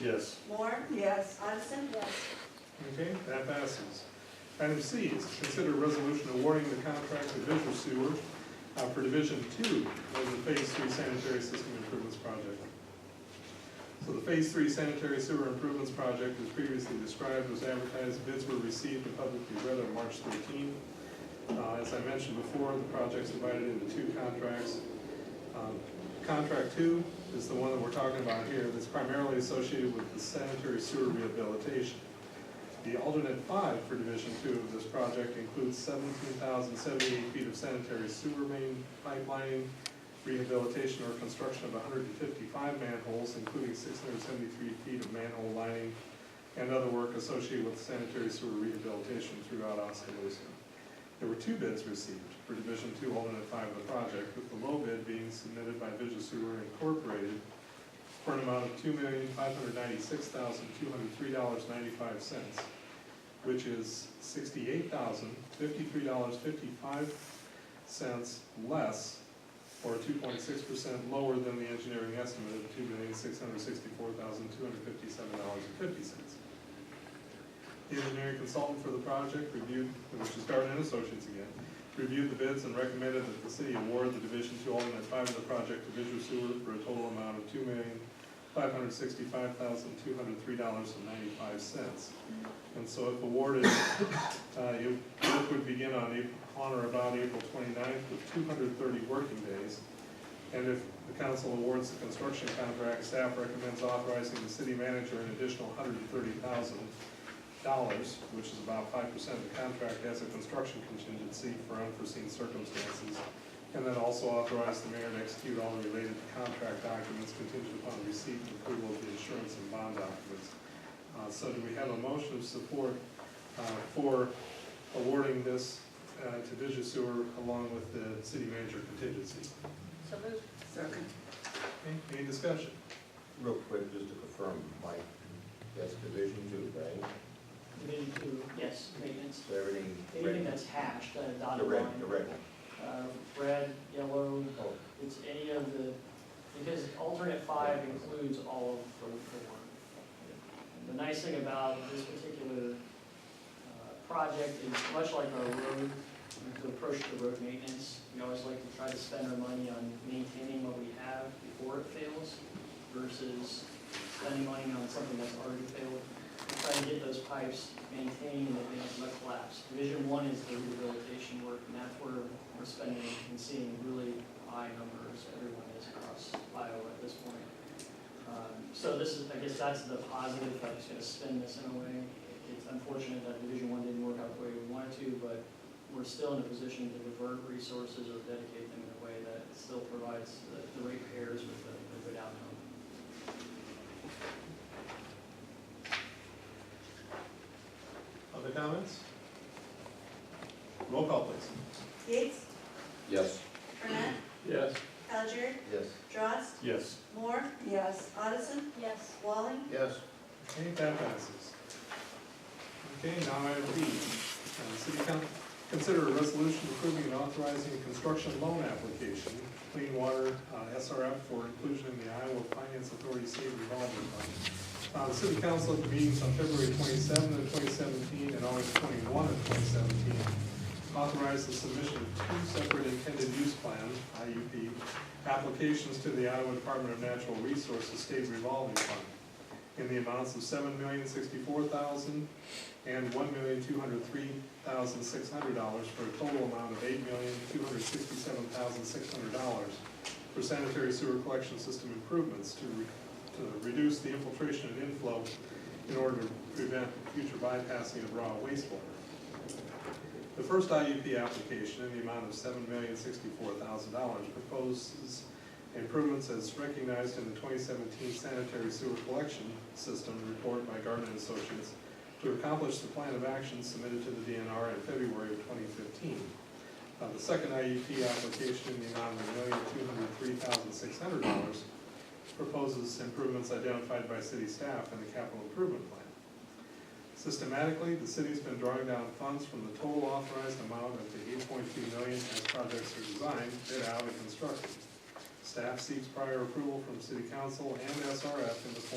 Yes. Moore, Yes. Armisen, Okay, that passes. Item C is to consider a resolution awarding the contract to Visual Sewer uh, for Division Two of the Phase Three Sanitary System Improvements Project. So the Phase Three Sanitary Sewer Improvements Project, as previously described, was advertised, bids were received and publicly read on March thirteenth. Uh, As I mentioned before, the project's divided into two contracts. Um, Contract two is the one that we're talking about here, that's primarily associated with the sanitary sewer rehabilitation. The alternate five for Division Two of this project includes seventeen thousand seventy-eight feet of sanitary sewer main pipelining, rehabilitation or construction of hundred and fifty-five manholes, including six hundred seventy-three feet of manhole lining, and other work associated with sanitary sewer rehabilitation throughout Oskaloosa. There were two bids received for Division Two alternate five of the project, with the low bid being submitted by Visual Sewer Incorporated for an amount of two million, five hundred ninety-six thousand, two hundred three dollars, ninety-five cents, which is sixty-eight thousand, fifty-three dollars, fifty-five cents less, or two point six percent lower than the engineering estimate of two million, six hundred sixty-four thousand, two hundred fifty-seven dollars and fifty cents. The engineering consultant for the project reviewed, which is Darden and Associates again, reviewed the bids and recommended that the city award the Division Two alternate five of the project to Visual Sewer for a total amount of two million, five hundred sixty-five thousand, two hundred three dollars and ninety-five cents. And so if awarded, uh, you, work would begin on April, on or about April 29th with two hundred thirty working days. And if the council awards the construction contract, staff recommends authorizing the city manager an additional hundred and thirty thousand dollars, which is about five percent of the contract, as a construction contingency for unforeseen circumstances. And then also authorize the mayor to execute all related contract documents contingent upon receipt and approval of the insurance and bond documents. Uh, so do we have a motion of support, uh, for awarding this, uh, to Vision Sewer along with the city manager contingency? So moved. Second. Okay, Any discussion? Real quick, just to confirm, Mike, that's division two, right? Committee to, yes, maintenance, So everything anything red, that's hatched, uh, the dotted line. red, the red one. Uh, red, yellow, Oh, it's any of the, because alternate five includes all of Road Four. And The nice thing about this particular, uh, project is much like our road, the approach to road maintenance, we always like to try to spend our money on maintaining what we have before it fails versus spending money on something that's already failed. We're Trying to get those pipes maintained and they don't collapse. Division one is the rehabilitation work, and that's where we're spending and seeing really high numbers, everyone is across Iowa at this point. Um, So this is, I guess that's the positive, if I was gonna spin this in a way. It's unfortunate that Division One didn't work out the way we wanted to, but we're still in a position to divert resources or dedicate them in a way that still provides the the ratepayers with a a good outcome. Other comments? Roll call, please. Gates, Yes. Burnett, Yes. Alger, Yes. Drost, Yes. Moore, Yes. Addison, Yes. Walling, Yes. Okay, that passes. Okay, now item D, uh, city council, consider a resolution approving and authorizing a construction loan application, clean water, uh, SRF for inclusion in the Iowa Finance Authority State Revolving Fund. Uh, the city council at the meetings on February twenty-seven of twenty seventeen and August twenty-one of twenty seventeen authorized the submission of two separate intended use plan, IUP, applications to the Iowa Department of Natural Resources State Revolving Fund in the amounts of seven million sixty-four thousand and one million two hundred three thousand six hundred dollars for a total amount of eight million two hundred sixty-seven thousand six hundred dollars for sanitary sewer collection system improvements to, re- to reduce the infiltration and inflow in order to prevent future bypassing of raw wastewater. The first IUP application in the amount of seven million sixty-four thousand dollars proposes improvements as recognized in the twenty seventeen sanitary sewer collection system report by Garden Associates to accomplish the plan of action submitted to the DNR in February of twenty fifteen. Uh, the second IUP application in the amount of million two hundred three thousand six hundred dollars proposes improvements identified by city staff in the capital improvement plan. Systematically, the city's been drawing down funds from the total authorized amount of the eight point two million as projects are designed, bid out, and constructed. Staff seeks prior approval from city council and SRF in the form